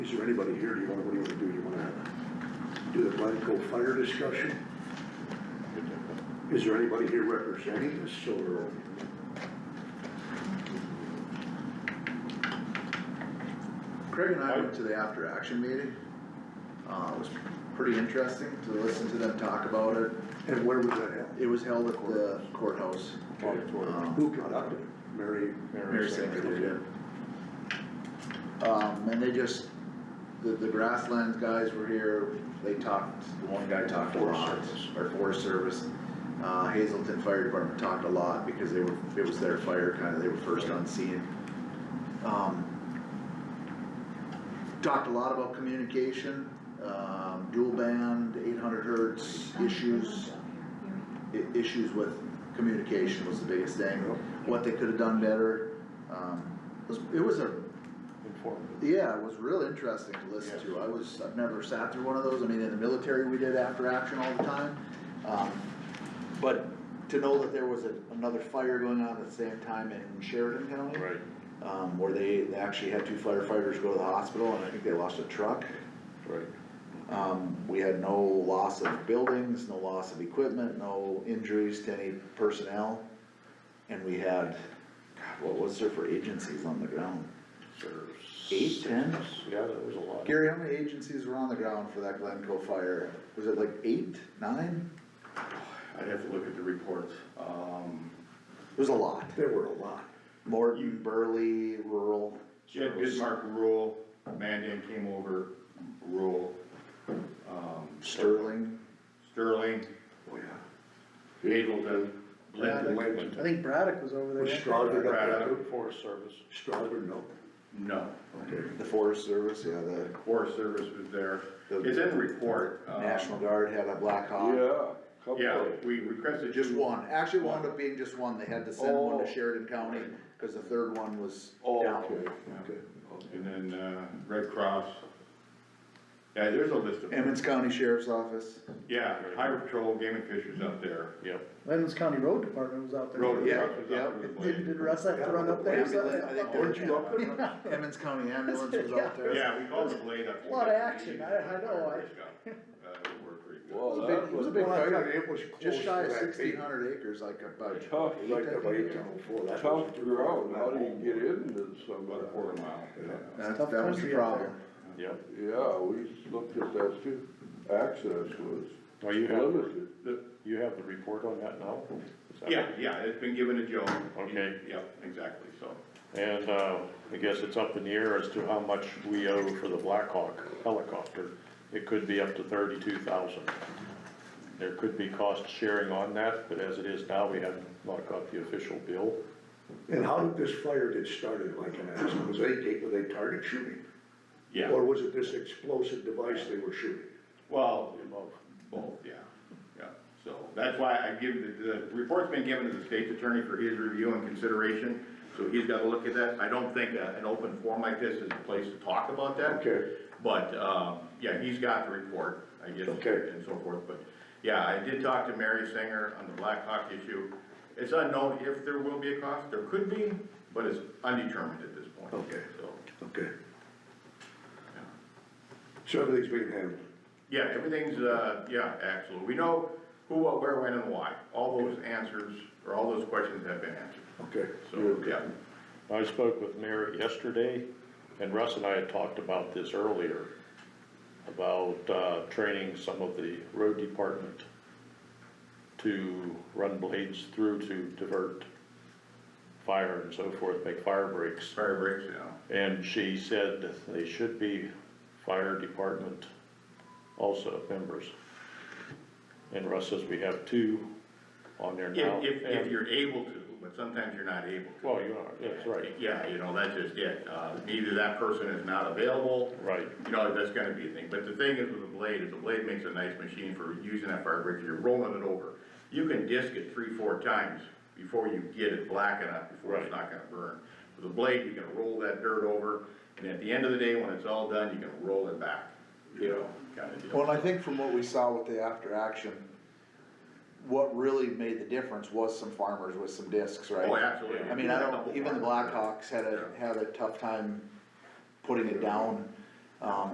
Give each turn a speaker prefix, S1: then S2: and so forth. S1: Is there anybody here, do you wanna, what do you wanna do, do you wanna do the Glencoe fire discussion? Is there anybody here representing us, or?
S2: Craig and I went to the after action meeting. Uh, it was pretty interesting to listen to them talk about it.
S1: And where was that held?
S2: It was held at the courthouse. Um,
S1: Auditorium. Who conducted it? Mary?
S2: Mary Singer did it. Um, and they just, the, the grasslands guys were here, they talked, the one guy talked a
S1: Forest
S2: lot,
S1: Service.
S2: or Forest Service. Uh, Hazelton Fire Department talked a lot because they were, it was their fire, kinda, they were first on scene. Um, Talked a lot about communication, um, dual band, eight hundred hertz issues i- issues with communication was the biggest thing, what they could have done better. Um, it was, it was a, yeah, it was real interesting to listen to, I was, I've never sat through one of those, I mean, in the military, we did after action all the time. Um, But to know that there was a- another fire going on at the same time in Sheridan County. Right. Um, where they they actually had two firefighters go to the hospital, and I think they lost a truck.
S3: Right.
S2: Um, we had no loss of buildings, no loss of equipment, no injuries to any personnel. And we had, God, what was there for agencies on the ground? Eight, ten?
S3: Yeah, that was a lot.
S2: Gary, how many agencies were on the ground for that Glencoe fire? Was it like eight, nine?
S3: I'd have to look at the report. Um,
S2: It was a lot.
S1: There were a lot.
S2: Morton, Burley, rural.
S3: Jed Bismarck rural, Mandan came over rural, um,
S2: Sterling.
S3: Sterling,
S1: Oh, yeah.
S3: Hazelton, Lincoln,
S1: Lincoln.
S4: I think Braddock was over there.
S1: Was Strasburg up there?
S3: Braddock.
S1: too?
S3: Forest Service.
S1: Strasburg, no.
S3: No,
S2: The Forest Service, yeah, the
S3: Forest Service was there. It's in the report. um,
S2: National Guard had a Black Hawk.
S3: Yeah, we requested.
S2: Just one, actually wound up being just one, they had to send one to Sheridan County, cause the third one was down.
S1: Oh, Okay.
S3: And then, uh, Red Cross. Yeah, there's a list of,
S2: Emmons County Sheriff's Office,
S3: yeah, Highway Patrol, Game and Fish was up there. Yep.
S4: Lennox County Road Department was out there.
S3: Road
S2: Yeah,
S3: Cross was up there.
S4: Did, did Russ have to run up there or
S2: Ambulance, I think
S4: something?
S2: they-
S1: Weren't you up there?
S2: Emmons County Ambulance was out there.
S3: Yeah, we called the blade up.
S4: A lot of action, I- I know, I-
S3: Uh, it worked pretty good.
S2: It was a big, it was a big
S1: Well, I thought
S2: fire,
S1: it was close
S2: just
S1: to
S2: shy of
S1: that big-
S2: sixteen hundred acres, like about
S5: Tough,
S2: eight,
S1: Right
S2: I
S1: up
S2: think.
S1: eight down before that.
S5: tough ground, how do you get into some
S3: About a
S5: of
S3: quarter mile.
S2: That,
S4: Tough
S2: that was the
S4: country out
S2: problem.
S3: Yep.
S5: that? Yeah, we looked at that too, access was
S6: Well, you have,
S5: limited.
S3: The-
S6: you have the report on that now? Is that-
S3: Yeah, yeah, it's been given to Joe.
S6: Okay.
S3: Yep, exactly, so.
S6: And, uh, I guess it's up in the air as to how much we owe for the Black Hawk helicopter. It could be up to thirty-two thousand. There could be cost sharing on that, but as it is now, we haven't not got the official bill.
S1: And how did this fire get started, like an accident? Was they, take- were they target shooting?
S3: Yeah,
S1: Or was it this explosive device they were shooting?
S3: well, both, yeah, yeah. So that's why I give, the, the report's been given to the state's attorney for his review and consideration. So he's gotta look at that. I don't think uh, an open forum like this is the place to talk about that.
S1: Okay.
S3: But, um, yeah, he's got the report, I guess,
S1: Okay.
S3: and so forth, but, yeah, I did talk to Mary Singer on the Black Hawk issue. It's unknown if there will be a cost, there could be, but it's undetermined at this point.
S1: Okay.
S3: So,
S1: Okay. So everything's being handled.
S3: yeah, everything's, uh, yeah, absolutely, we know who, what, where, when, and why, all those answers, or all those questions have been answered,
S1: Okay.
S3: so, yeah.
S6: I spoke with Mary yesterday, and Russ and I had talked about this earlier, about, uh, training some of the road department to run blades through to divert fire and so forth, make fire breaks.
S3: Fire breaks, yeah,
S6: And she said they should be fire department also members. And Russ says we have two on there now.
S3: if, if,
S6: and-
S3: if you're able to, but sometimes you're not able to.
S6: Well, you are, that's right,
S3: Yeah, you know, that's just it, uh, either that person is not available,
S6: right.
S3: you know, that's gonna be a thing, but the thing is with a blade, is a blade makes a nice machine for using that fire break, you're rolling it over. You can disc it three, four times before you get it black enough, before it's
S6: Right.
S3: not gonna burn. With a blade, you can roll that dirt over, and at the end of the day, when it's all done, you can roll it back, you know, kinda deal.
S2: Well, and I think from what we saw with the after action, what really made the difference was some farmers with some discs, right?
S3: Oh, absolutely.
S2: I mean, I don't, even the Blackhawks had a, had a tough time putting it down. Um,